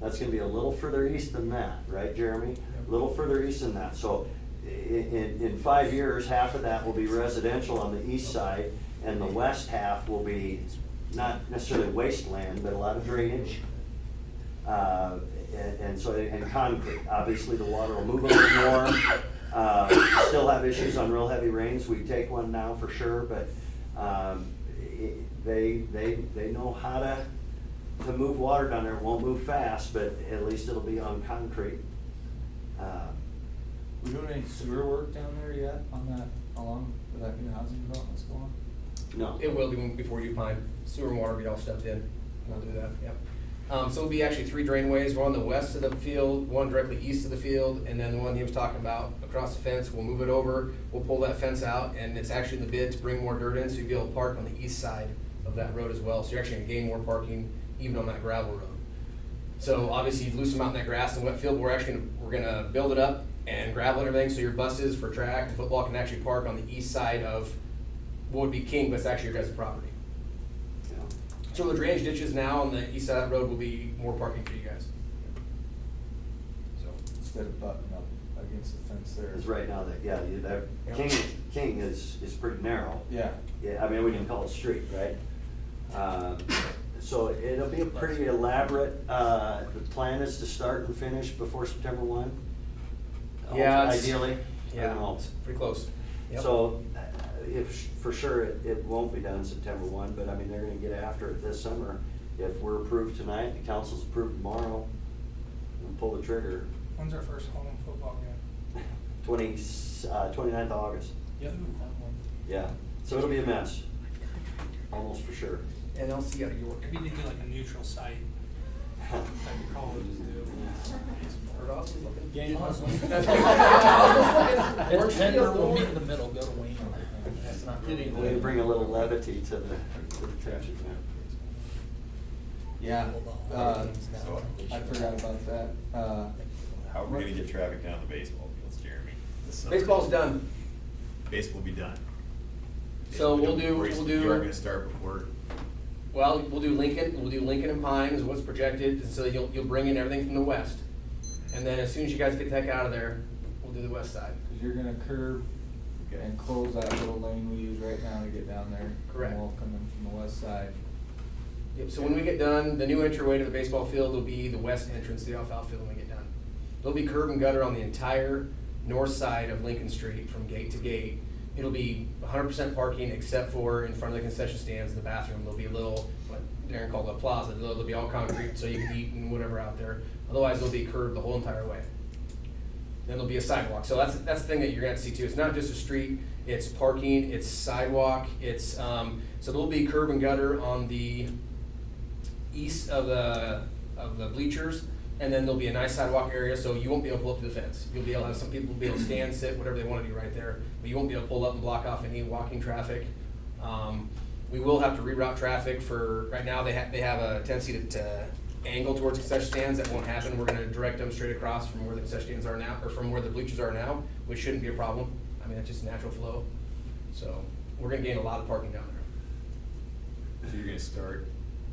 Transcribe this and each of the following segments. That's gonna be a little further east than that, right, Jeremy? A little further east than that, so i- i- in, in five years, half of that will be residential on the east side, and the west half will be not necessarily wasteland, but a lot of drainage. Uh, and, and so, and concrete, obviously the water will move a bit more. Uh, still have issues on real heavy rains, we take one now for sure, but, um, it, they, they, they know how to, to move water down there, It won't move fast, but at least it'll be on concrete. Uh, We doing any sewer work down there yet on that, along with that new housing development's going? No. It will be when- before you pine, sewer and water will be all stepped in, we'll do that, yep. Um, so it'll be actually three drainways, one on the west of the field, one directly east of the field, and then the one he was talking about across the fence, we'll move it over, we'll pull that fence out, and it's actually in the bid to bring more dirt in, so you'll be able to park on the east side of that road as well, so you're actually gonna gain more parking even on that gravel road. So obviously you loosen out in that grass and wet field, we're actually, gonna- we're gonna build it up and gravel and everything, so your buses for track and football can actually park on the east side of what would be king, but it's actually your guys' property. Yeah. So the drainage ditches now on the east side of that road will be more parking for you guys. So, Instead of butting up against the fence there. Because right now, that, yeah, you- that, Yeah. King, King is, is pretty narrow. Yeah. Yeah, I mean, we can call it street, right? Um, So it'll be a pretty elaborate, uh, the plan is to start and finish before September one? Yeah, it's- Ideally? I don't yeah, know. it's pretty close. Yep. So uh, if, for sure, it, it won't be done September one, but I mean, they're gonna get after it this summer. If we're approved tonight, the council's approved tomorrow, and pull the trigger, When's our first home football game? twenty, uh, twenty-ninth of August. Yep. Yeah, so it'll be a mess, almost for sure. And I'll see you out of York. Maybe they do like a neutral site, like the colleges do. Or Austin's looking. Yeah, you know, it's- That's what I was looking. It's Denver, we'll meet in the middle, go to Wayne. That's not We need to bring a little levity to the, to the tragic now. Yeah, uh, I forgot about that, uh, How are we gonna get traffic down to the baseball fields, Jeremy? this summer? Baseball's done. Baseball will be done. So we'll do- Baseball, we'll do- You aren't gonna start before, Well, we'll do Lincoln, we'll do Lincoln and Pine is what's projected, and so you'll, you'll bring in everything from the west. And then as soon as you guys get the heck out of there, we'll do the west side. you you're gonna curve Okay. and close that little lane we use right now to get down there. Correct. And we'll come in from the west side. Yep, so when we get done, the new entryway to the baseball field will be the west entrance to the outfield when we get done. There'll be curb and gutter on the entire north side of Lincoln Street from gate to gate. It'll be hundred percent parking except for in front of the concession stands, the bathroom, there'll be a little, what Darren called a plaza, there'll there'll be all concrete, so you can eat and whatever out there. Otherwise, there'll be curb the whole entire way. Then there'll be a sidewalk, so that's, that's the thing that you're gonna have to see too, it's not just a street, it's parking, it's sidewalk, it's, um, so there'll be curb and gutter on the east of the, of the bleachers, and then there'll be a nice sidewalk area, so you won't be able to pull up to the fence. You'll be able to have some people be able to stand, sit, whatever they wanna do right there, but you won't be able to pull up and block off any walking traffic. Um, we will have to reroute traffic for, right now, they have, they have a tendency to, to angle towards concession stands, that won't happen. We're gonna direct them straight across from where the concession stands are now, or from where the bleachers are now, which shouldn't be a problem. I mean, that's just natural flow, so we're gonna gain a lot of parking down there. so you're gonna start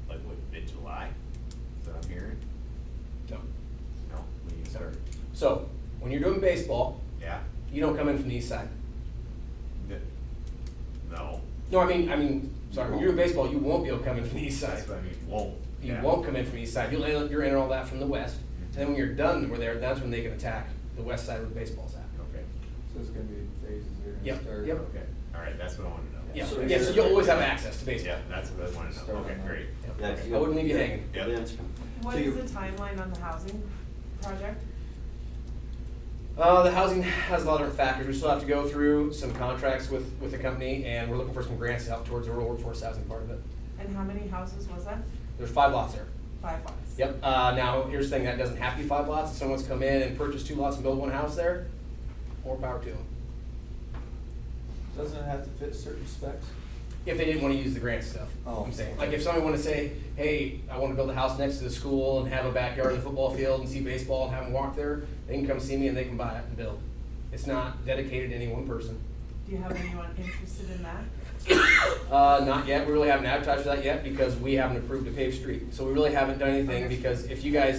like what, mid-July? Is that what I'm hearing? So- No, when you start, So, when you're doing baseball, yeah? you don't come in from the east side. N- No, No, I mean, I mean, sorry, when you're doing baseball, you won't be able to come in from the east side. that's what I mean, won't. You Yeah. won't come in from the east side. You'll, enter- you're entering all that from the west. And then when you're done, we're there, that's when they can attack the west side where the baseball's at. Okay, So it's gonna be phases here and Yep, start. yep. okay, all right, that's what I wanted to know. Yeah, So yeah, so you're- you'll always have access to baseball. Yeah, that's what I wanted to know, Start okay, on that. great. Yeah, 'cause I you- wouldn't leave you hanging. Yeah. Events come. What So is you- the timeline on the housing project? Uh, the housing has a lot of different factors. We still have to go through some contracts with, with the company and we're looking for some grants to help towards the rural workforce housing part of it. And how many houses was that? There's five lots there. Five lots? Yep, uh, now, here's the thing, that doesn't have to be five lots, if someone's come in and purchased two lots and built one house there, more power to them, Doesn't it have to fit certain specs? if they didn't wanna use the grant stuff, Oh. I'm saying, like, if somebody wanna say, hey, I wanna build a house next to the school and have a backyard and a football field and see baseball and have them walk there, they can come see me and they can buy it and build. It's not dedicated to any one person. Do you have anyone interested in that? Uh, not yet, we really haven't advertised for that yet, because we haven't approved a paved street, so we really haven't done anything, because if you guys